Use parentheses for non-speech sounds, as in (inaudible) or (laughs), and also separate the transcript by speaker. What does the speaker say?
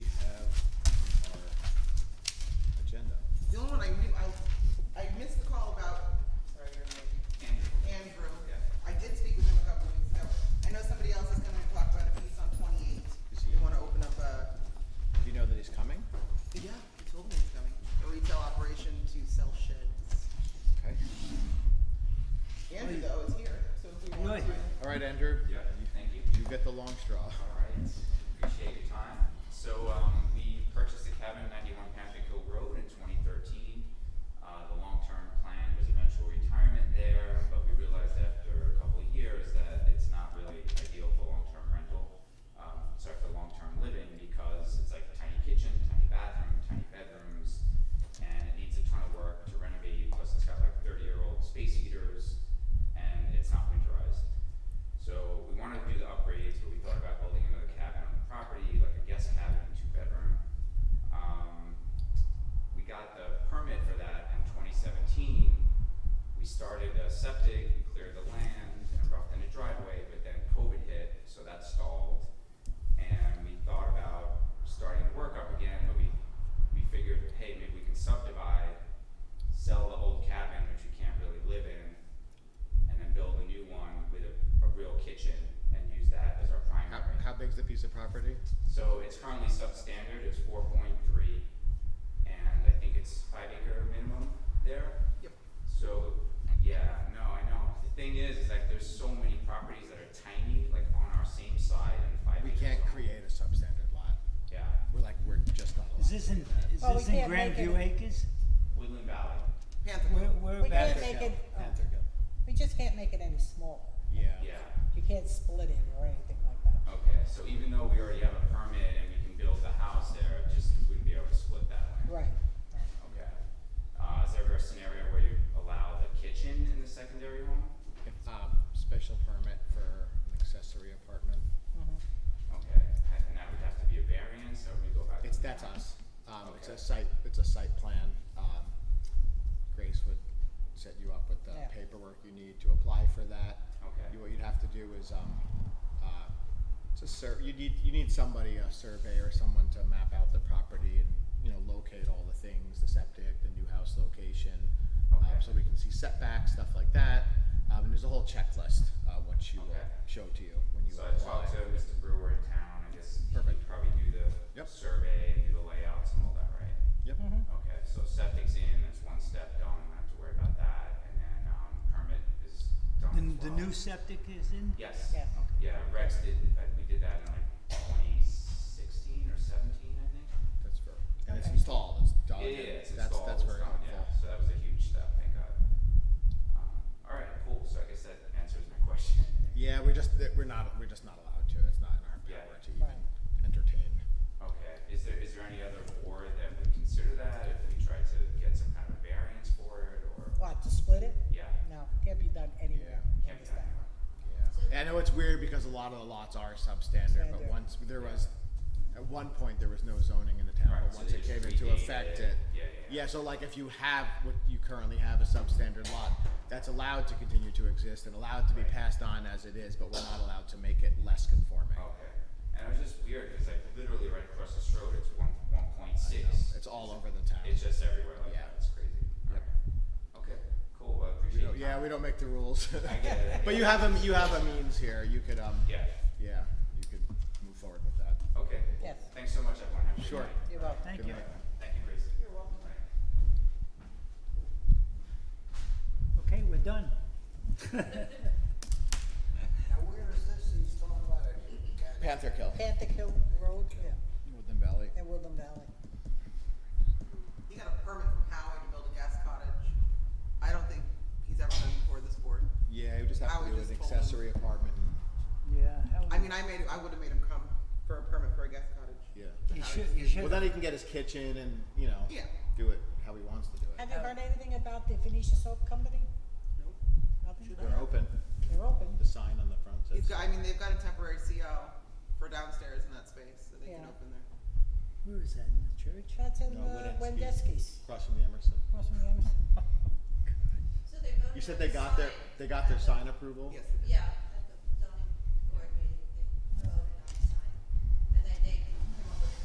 Speaker 1: right, Andrew?
Speaker 2: Yeah, thank you.
Speaker 1: You get the long straw.
Speaker 2: All right, appreciate your time. So, um, we purchased the cabin at ninety-one Panther Hill Road in twenty thirteen. Uh, the long-term plan was eventual retirement there, but we realized after a couple of years that it's not really ideal for long-term rental. Um, sorry, for long-term living because it's like a tiny kitchen, tiny bathroom, tiny bedrooms, and it needs a ton of work to renovate, plus it's got like thirty-year-old space heaters, and it's not winterized. So we wanted to do the upgrades, but we thought about building another cabin on the property, like a guest cabin, two bedroom. Um, we got the permit for that in twenty seventeen. We started a septic, we cleared the land and roughed in a driveway, but then COVID hit, so that stalled. And we thought about starting to work up again, but we, we figured, hey, maybe we can subdivide, sell the old cabin, which we can't really live in, and then build a new one with a, a real kitchen and use that as our
Speaker 1: How,
Speaker 2: primary.
Speaker 1: how big's the piece of property?
Speaker 2: So it's currently substandard, it's four point three, and I think it's five acre minimum there.
Speaker 1: Yep.
Speaker 2: So, yeah, no, I know, the thing is, is like there's so many properties that are tiny, like on our same side and five
Speaker 1: We
Speaker 2: acres.
Speaker 1: can't
Speaker 2: on-
Speaker 1: create a substandard lot.
Speaker 2: Yeah,
Speaker 1: We're like, we're just not allowed.
Speaker 3: Is
Speaker 1: to
Speaker 3: this
Speaker 1: do
Speaker 3: in,
Speaker 1: that.
Speaker 3: is
Speaker 4: Well, we
Speaker 3: this in
Speaker 4: can't make
Speaker 3: Grandview
Speaker 4: it-
Speaker 3: Acres?
Speaker 2: Woodland Valley,
Speaker 5: Panther
Speaker 3: Where,
Speaker 5: Hill.
Speaker 3: where
Speaker 4: We can't
Speaker 3: about?
Speaker 4: make it,
Speaker 1: Pantherville.
Speaker 4: we just can't make it any smaller.
Speaker 1: Yeah.
Speaker 2: yeah.
Speaker 4: You can't split it or anything like that.
Speaker 2: Okay, so even though we already have a permit and we can build the house there, it just wouldn't be able to split that land.
Speaker 4: Right. right.
Speaker 2: Okay. Uh, is there ever a scenario where you allow the kitchen in the secondary home?
Speaker 1: If, um, special permit for an accessory apartment.
Speaker 4: Mhm.
Speaker 2: Okay, and that would have to be a variance, or we go back? to
Speaker 1: It's,
Speaker 2: the
Speaker 1: that's
Speaker 2: town?
Speaker 1: us. Um, it's a
Speaker 2: Okay.
Speaker 1: site, it's a site plan. Um, Grace would set you up with the
Speaker 4: Yeah.
Speaker 1: paperwork you need to apply for that.
Speaker 2: Okay.
Speaker 1: You- What you'd have to do is, um, uh, it's a sur, you need, you need somebody, a surveyor, someone to map out the property and, you know, locate all the things, the septic, the new house location. um,
Speaker 2: Okay.
Speaker 1: So we can see setbacks, stuff like that. Um, and there's a whole checklist, uh, which you will
Speaker 2: Okay.
Speaker 1: show to you when you
Speaker 2: So
Speaker 1: apply.
Speaker 2: I talked to Mr. Brewer in town, I guess he
Speaker 1: Perfect.
Speaker 2: could probably do the
Speaker 1: Yep.
Speaker 2: survey and do the layouts and all that, right?
Speaker 1: Yep.
Speaker 4: Mhm.
Speaker 2: Okay, so septic's in, that's one step done, I don't have to worry about that, and then, um, permit is done as
Speaker 3: The, the
Speaker 2: well.
Speaker 3: new septic is in?
Speaker 2: Yes.
Speaker 4: Yeah.
Speaker 2: Yeah, Rex did, uh, we did that in like twenty sixteen or seventeen, I think.
Speaker 1: That's for, and it's
Speaker 4: Okay.
Speaker 1: installed, it's done.
Speaker 2: Yeah, yeah, it's
Speaker 1: That's,
Speaker 2: installed,
Speaker 1: that's
Speaker 2: it's
Speaker 1: very
Speaker 2: done,
Speaker 1: helpful.
Speaker 2: yeah, so that was a huge step, thank God. Um, alright, cool, so I guess that answers my (laughs) question.
Speaker 1: Yeah, we're just, that- we're not, we're just not allowed to, it's not in our
Speaker 2: Yeah.
Speaker 1: power to even
Speaker 4: Right.
Speaker 1: entertain.
Speaker 2: Okay, is there, is there any other board that would consider that, if we try to get some kind of variance for it, or?
Speaker 4: What, to split it?
Speaker 2: Yeah,
Speaker 4: No, can't be done anywhere.
Speaker 1: Yeah,
Speaker 2: can't be done anymore.
Speaker 1: Yeah, And I know it's weird because a lot of the lots are substandard, but
Speaker 4: Standard.
Speaker 1: once, there
Speaker 2: Yeah.
Speaker 1: was, at one point, there was no zoning in the town,
Speaker 2: Right,
Speaker 1: but
Speaker 2: so
Speaker 1: once
Speaker 2: they
Speaker 1: it
Speaker 2: just
Speaker 1: came into
Speaker 2: renamed
Speaker 1: effect,
Speaker 2: it.
Speaker 1: it.
Speaker 2: Yeah, yeah, yeah.
Speaker 1: so like if you have, what you currently have, a substandard lot, that's allowed to continue to exist and allowed to be
Speaker 2: Right.
Speaker 1: passed on as it is, but we're not allowed to make it less conforming.
Speaker 2: Okay, and it was just weird, cause like literally right across this road, it's one, one point
Speaker 1: I
Speaker 2: six.
Speaker 1: know, It's all over the town.
Speaker 2: It's just everywhere like
Speaker 1: Yeah.
Speaker 2: that, it's crazy.
Speaker 1: Yep.
Speaker 2: Alright. Okay, cool, well, I
Speaker 1: We
Speaker 2: appreciate
Speaker 1: don't-
Speaker 2: it.
Speaker 1: Yeah, we don't make the rules. (laughs)
Speaker 2: I get it. I
Speaker 1: But you
Speaker 2: get it.
Speaker 1: have a, you have a means here, you could, um,
Speaker 2: Yeah,
Speaker 1: yeah, you could move forward with that.
Speaker 2: okay, cool.
Speaker 4: Yes.
Speaker 2: Thanks so much, everyone, have a good
Speaker 1: Sure.
Speaker 2: night.
Speaker 4: You're welcome.
Speaker 3: Thank
Speaker 1: Good
Speaker 3: you.
Speaker 1: night.
Speaker 2: Thank you, Grace. You're welcome.
Speaker 3: Okay, we're done.
Speaker 5: Now, where is this he's talking about? it?
Speaker 1: Panther Kill,
Speaker 4: Panther Hill Road, yeah,
Speaker 1: Woodland Valley.
Speaker 4: in Woodland Valley.
Speaker 5: He got a permit from Howie to build a gas cottage. I don't think he's ever been before this board.
Speaker 1: Yeah, you just
Speaker 5: I
Speaker 1: have to
Speaker 5: would
Speaker 1: do an
Speaker 5: just pull them.
Speaker 1: accessory apartment.
Speaker 3: Yeah, how,
Speaker 5: I mean, I made, I would've made him come for a permit for a gas cottage.
Speaker 1: Yeah.
Speaker 5: But
Speaker 3: you
Speaker 5: Howie
Speaker 3: should,
Speaker 5: just
Speaker 3: you
Speaker 5: didn't.
Speaker 1: Well,
Speaker 3: should,
Speaker 1: then he can get his kitchen and, you know,
Speaker 5: Yeah.
Speaker 1: do it how he wants to do it.
Speaker 4: Have you heard anything about the Phoenicia Soap Company?
Speaker 5: Nope.
Speaker 4: Nothing?
Speaker 1: They're open.
Speaker 4: They're open.
Speaker 1: The sign on the front
Speaker 5: He's
Speaker 1: says.
Speaker 5: got, I mean, they've got a temporary CO for downstairs in that space, so they can
Speaker 4: Yeah.
Speaker 5: open there.
Speaker 3: where is that, in the church?
Speaker 4: That's in
Speaker 1: No,
Speaker 4: uh,
Speaker 1: Wendeski's.
Speaker 4: Wendeski's,
Speaker 1: Across from the Emerson.
Speaker 4: across from the Emerson.
Speaker 6: So they voted
Speaker 1: You said
Speaker 6: on
Speaker 1: they
Speaker 6: the
Speaker 1: got their
Speaker 6: sign.
Speaker 1: they got their sign approval.
Speaker 5: Yes, it is.
Speaker 6: Yeah,